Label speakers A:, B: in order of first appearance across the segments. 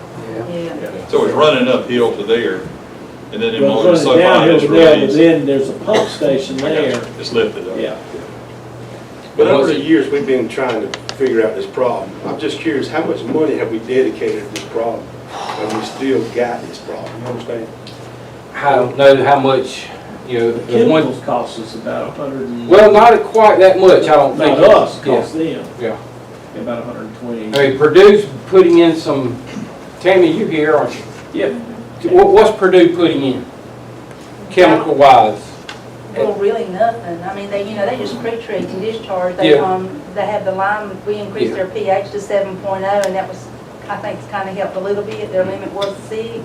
A: Yeah,
B: So it's running uphill to there, and then it
C: Well,
B: won't,
C: it's
B: so
C: running
B: far
C: downhill
B: it's
C: to there, but
B: released.
C: then there's a pump station
B: I got
C: there,
B: you. It's lifted up.
C: yeah.
D: But over the years, we've been trying to figure out this problem. I'm just curious, how much money have we dedicated to this problem? And we still got this problem, you know what I'm saying?
E: I don't know how much, you know,
C: The
E: the one,
C: Chemicals costs us about a hundred and.
E: well, not quite that much, I don't think.
C: Not us,
E: Yeah.
C: costs them,
E: Yeah,
C: about a hundred and twenty.
E: I mean, Purdue's putting in some, Tammy, you here, aren't you?
C: Yeah,
E: What- What's Purdue putting in, chemical wise?
A: well, really nothing, I mean, they, you know, they just pre-treat and discharge, they,
E: Yeah.
A: um, they had the lime, we increased their pH to seven oh, and that was, I think, kind of helped a little bit, their limit was six,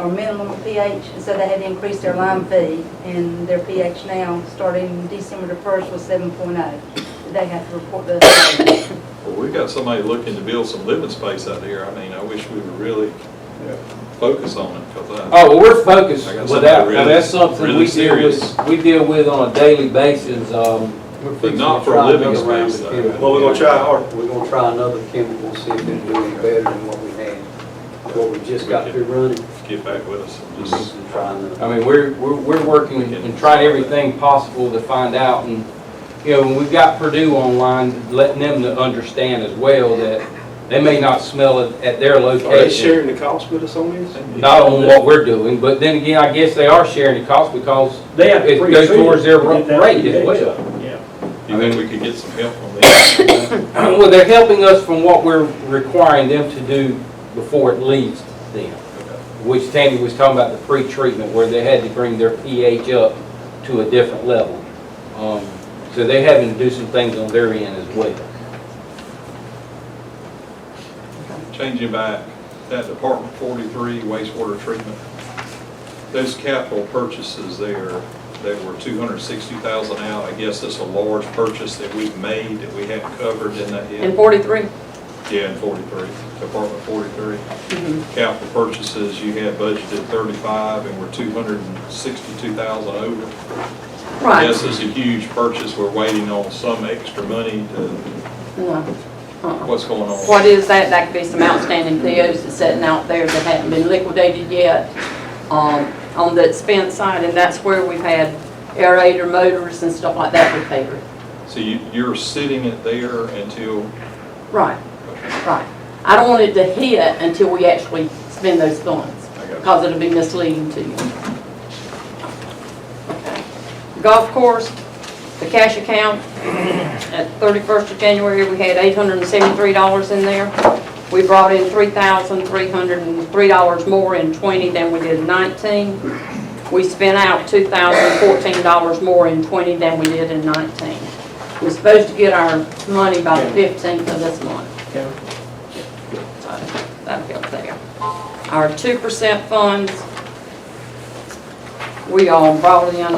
A: or minimum of pH, and so they had to increase their lime fee, and their pH now, starting December the first, was seven oh. They have to report the,
B: Well, we got somebody looking to build some living space out there. I mean, I wish we would really focus on it, because I,
E: Oh, well, we're focused
B: I got
E: with
B: something
E: that, now
B: really-
E: that's something
B: really
E: we deal
B: serious.
E: with, we deal with on a daily basis, um. we're
B: But
E: fixing
B: not
E: to
B: for
E: try
B: living
E: another round
B: space,
E: of
B: though.
E: chemicals.
D: Well, we're gonna try hard.
F: We're gonna try another chemical, see if it can do any better than what we had, what we just got through
C: Oh.
F: running,
B: get back with us and just,
F: and try another.
E: I mean, we're, we're, we're working and trying everything possible to find out and, you know, when we've got Purdue online, letting them to understand as well that they may not smell it at their
D: Are they
E: location.
D: sharing the cost with us on this?
E: Not on what we're doing, but then again, I guess they are sharing the cost because
C: they have. to
E: It goes
C: pre-treat
E: towards their
C: to get that
E: rate as
C: pH
E: well.
C: up, Yeah,
B: you think we could get some help on that?
E: Well, they're helping us from what we're requiring them to do before it leaves them, which Tammy was talking about the pre-treatment, where they had to bring their pH up to a different level. Um, So they're having to do some things on their end as well.
B: Changing back, that Department forty-three wastewater treatment, those capital purchases there, they were two hundred sixty thousand out. I guess that's a large purchase that we've made that we haven't covered in that yet.
G: And 43.
B: Yeah, in 43, Department 43. Capital purchases, you had budgeted 35, and we're 262,000 over.
G: Right.
B: Yes, it's a huge purchase, we're waiting on some extra money to,
G: No. Uh-uh.
B: what's going on?
G: What is that? That could be some outstanding POs that's sitting out there that haven't been liquidated yet um, on the expense side, and that's where we've had aerator motors and stuff like that repaired.
B: So you, you're sitting it there until,
G: Right, right. I don't want it to hit until we actually spend those funds,
B: I got
G: because it'll be misleading to you. Okay. Golf course, the cash account, at 31st of January, we had $873 in there. We brought in $3,303 more in '20 than we did in '19. We spent out $2,014 more in '20 than we did in '19. We're supposed to get our money by the 15th of this month.
C: Okay.
G: So that'll be up there. Our 2% funds, we all brought in,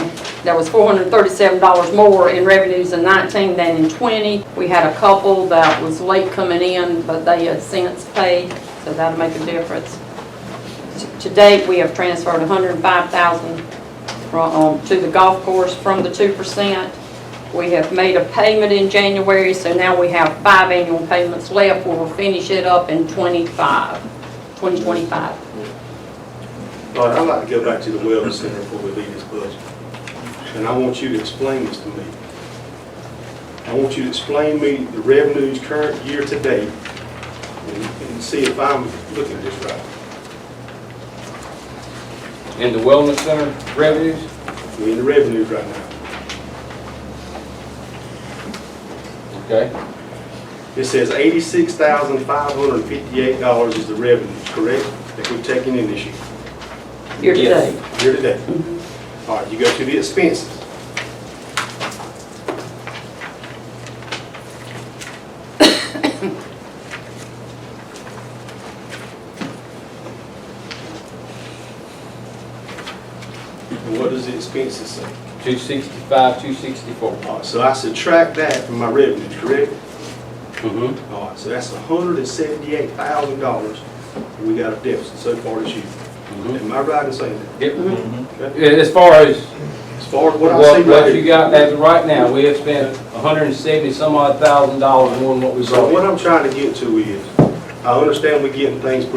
G: there was $437 more in revenues in 19 than in 20. We had a couple that was late coming in, but they have since paid, so that'll make a difference. To- To date, we have transferred $105,000 from, um, to the golf course from the 2%. We have made a payment in January, so now we have five annual payments left. We will finish it up in 25, 2025.
D: All right, I'd like to go back to the wellness center before we leave this budget. And I want you to explain this to me. I want you to explain me the revenues current year to date and and see if I'm looking at this right.
E: And the wellness center revenues,
D: We're in the revenues right now.
E: okay?
D: It says eighty-six thousand five hundred and fifty-eight dollars is the revenue, correct, that we're taking in this year,
G: Year to
E: Yes.
G: date.
D: year to date. All right, you go to the expenses. And what does the expenses say?
E: 265, 264.
D: All right, so I subtract that from my revenues, correct?
E: Mm-hmm.
D: All right, so that's hundred and seventy-eight thousand dollars we got a deficit so far this year.
E: Mm-hmm.
D: Am I right in saying that?
E: As far as
D: As far as Mm-hmm. what I see
E: what
D: right
E: what you
D: here?
E: got as of right now, we have spent 170 some odd thousand dollars more than what we
D: So
E: brought
D: what
E: in.
D: I'm trying to get to is, I understand we getting things